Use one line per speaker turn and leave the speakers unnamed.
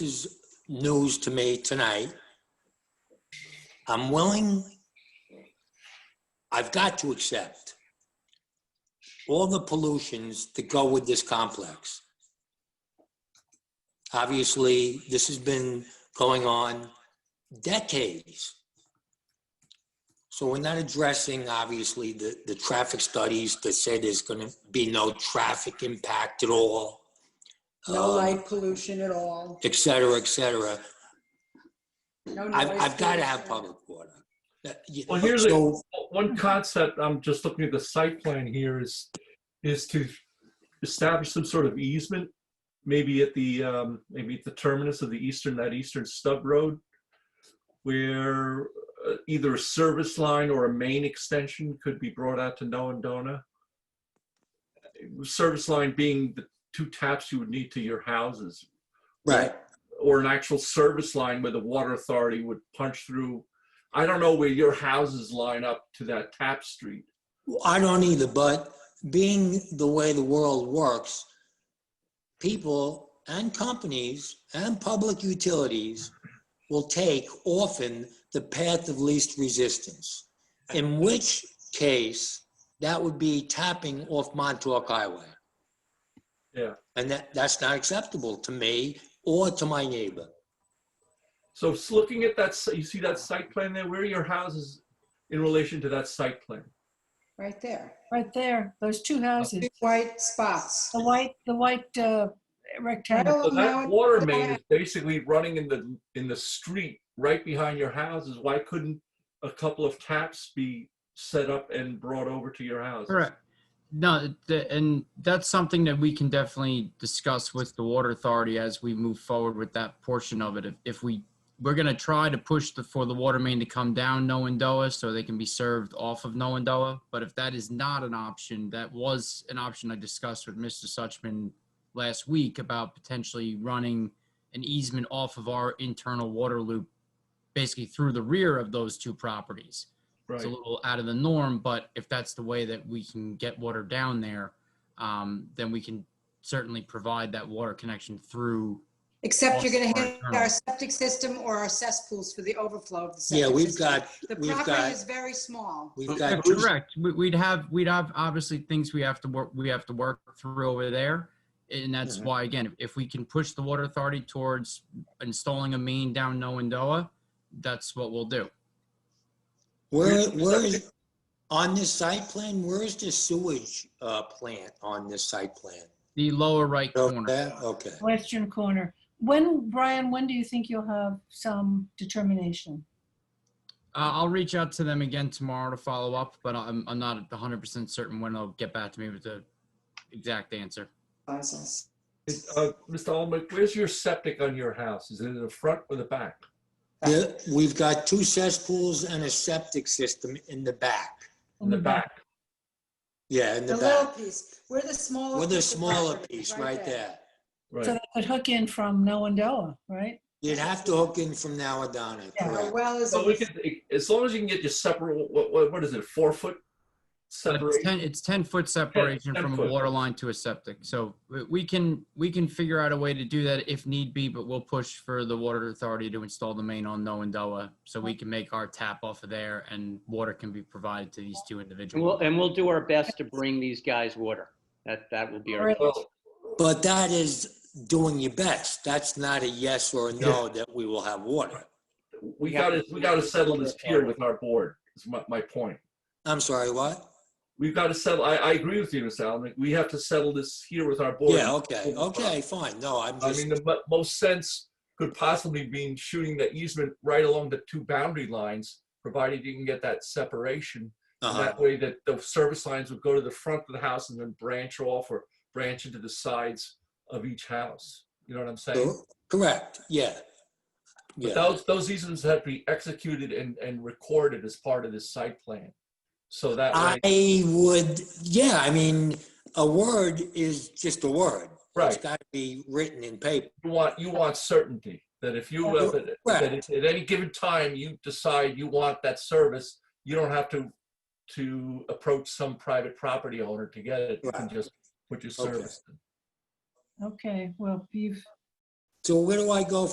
is news to me tonight. I'm willing, I've got to accept all the pollutions that go with this complex. Obviously, this has been going on decades. So we're not addressing, obviously, the, the traffic studies that say there's going to be no traffic impact at all.
No
Um,
light pollution at all,
et cetera, et cetera.
no noise.
I've, I've got to have
pollution.
public water. That- you-
Well, here's a-
so-
One concept, I'm just looking at the site plan here is, is to establish some sort of easement, maybe at the, um, maybe at the terminus of the eastern, that eastern stub road, where uh, either a service line or a main extension could be brought out to Noindona. Service line being the two taps you would need to your houses,
Right,
or an actual service line where the water authority would punch through. I don't know where your houses line up to that tap street.
I don't either, but being the way the world works, people and companies and public utilities will take often the path of least resistance, in which case that would be tapping off Montauk Highway.
Yeah.
And that, that's not acceptable to me or to my neighbor.
So it's looking at that, si- you see that site plan there, where are your houses in relation to that site plan?
Right there,
Right there, those two houses,
two white spots.
the white, the white uh, rectangle.
Well,
So
now
that
it's
water
not.
main is basically running in the, in the street right behind your houses. Why couldn't a couple of taps be set up and brought over to your house?
Correct. No, the, and that's something that we can definitely discuss with the water authority as we move forward with that portion of it. If, if we, we're gonna try to push the, for the water main to come down Noindoa so they can be served off of Noindoa. But if that is not an option, that was an option I discussed with Mr. Suchman last week about potentially running an easement off of our internal water loop, basically through the rear of those two properties
Right.
it's a little out of the norm, but if that's the way that we can get water down there, um, then we can certainly provide that water connection through.
Except you're going to hit
Awesome.
our septic system or our cesspools for the overflow of the septic.
Yeah, we've
system.
got,
The
we've
property
got-
is very small.
we've got two
Correct. We- We'd have, we'd have obviously things we have to work, we have to work through over there. And that's
Mhm.
why, again, if we can push the water authority towards installing a main down Noindoa, that's what we'll do.
Where, where is, on this site plan, where is the sewage uh, plant on this site plan?
The lower right corner. Uh,
Okay, okay.
Western corner. When, Brian, when do you think you'll have some determination?
Uh, I'll reach out to them again tomorrow to follow up, but I'm, I'm not 100% certain when they'll get back to me with the exact answer.
Uh, Mr. Olmec, where's your septic on your house? Is it in the front or the back?
There- We've got two cesspools and a septic system in the back.
In the back.
Yeah, in
The
the
little
back.
piece, we're the smaller.
With a
piece of
smaller
property,
piece right there.
Right.
So they could hook in from Noindoa, right?
You'd have to hook in from now on down, I-
Yeah.
Our
correct?
well is,
So we could, as long as you can get your separate, what, what, what is it, four foot
It's
separation?
10, it's 10 foot separation
10
from a
foot.
water line to a septic. So we- we can, we can figure out a way to do that if need be, but we'll push for the water authority to install the main on Noindoa so we can make our tap off of there and water can be provided to these two
And we'll,
individuals.
and we'll do our best to bring these guys water. That, that will be our.
Or at least-
Well,
But that is doing your best. That's not a yes or a no that we will have water.
We
We have
gotta,
to-
we gotta settle this here with our board, is my, my point.
I'm sorry, what?
We've gotta settle, I, I agree with you, Mr. Allen. We have to settle this here with our board.
Yeah, okay, okay, fine. No, I'm
I
just,
mean, the mo- most sense could possibly be shooting the easement right along the two boundary lines, provided you can get that separation. And
uh-huh,
That way that the service lines would go to the front of the house and then branch off or branch into the sides of each house. You know what I'm saying?
Cor- correct, yeah. Yeah.
But those, those easements have to be executed and, and recorded as part of this site plan. So that way,
I would, yeah, I mean, a word is just a word. It's
right,
got to be written in paper.
you want, you want certainty that if you, uh, that that if at any given time you decide you want that service, you don't have to, to approach some private property owner to get it. You can
Right.
just put your
Okay.
service. in.
Okay, well, you've
So where do I go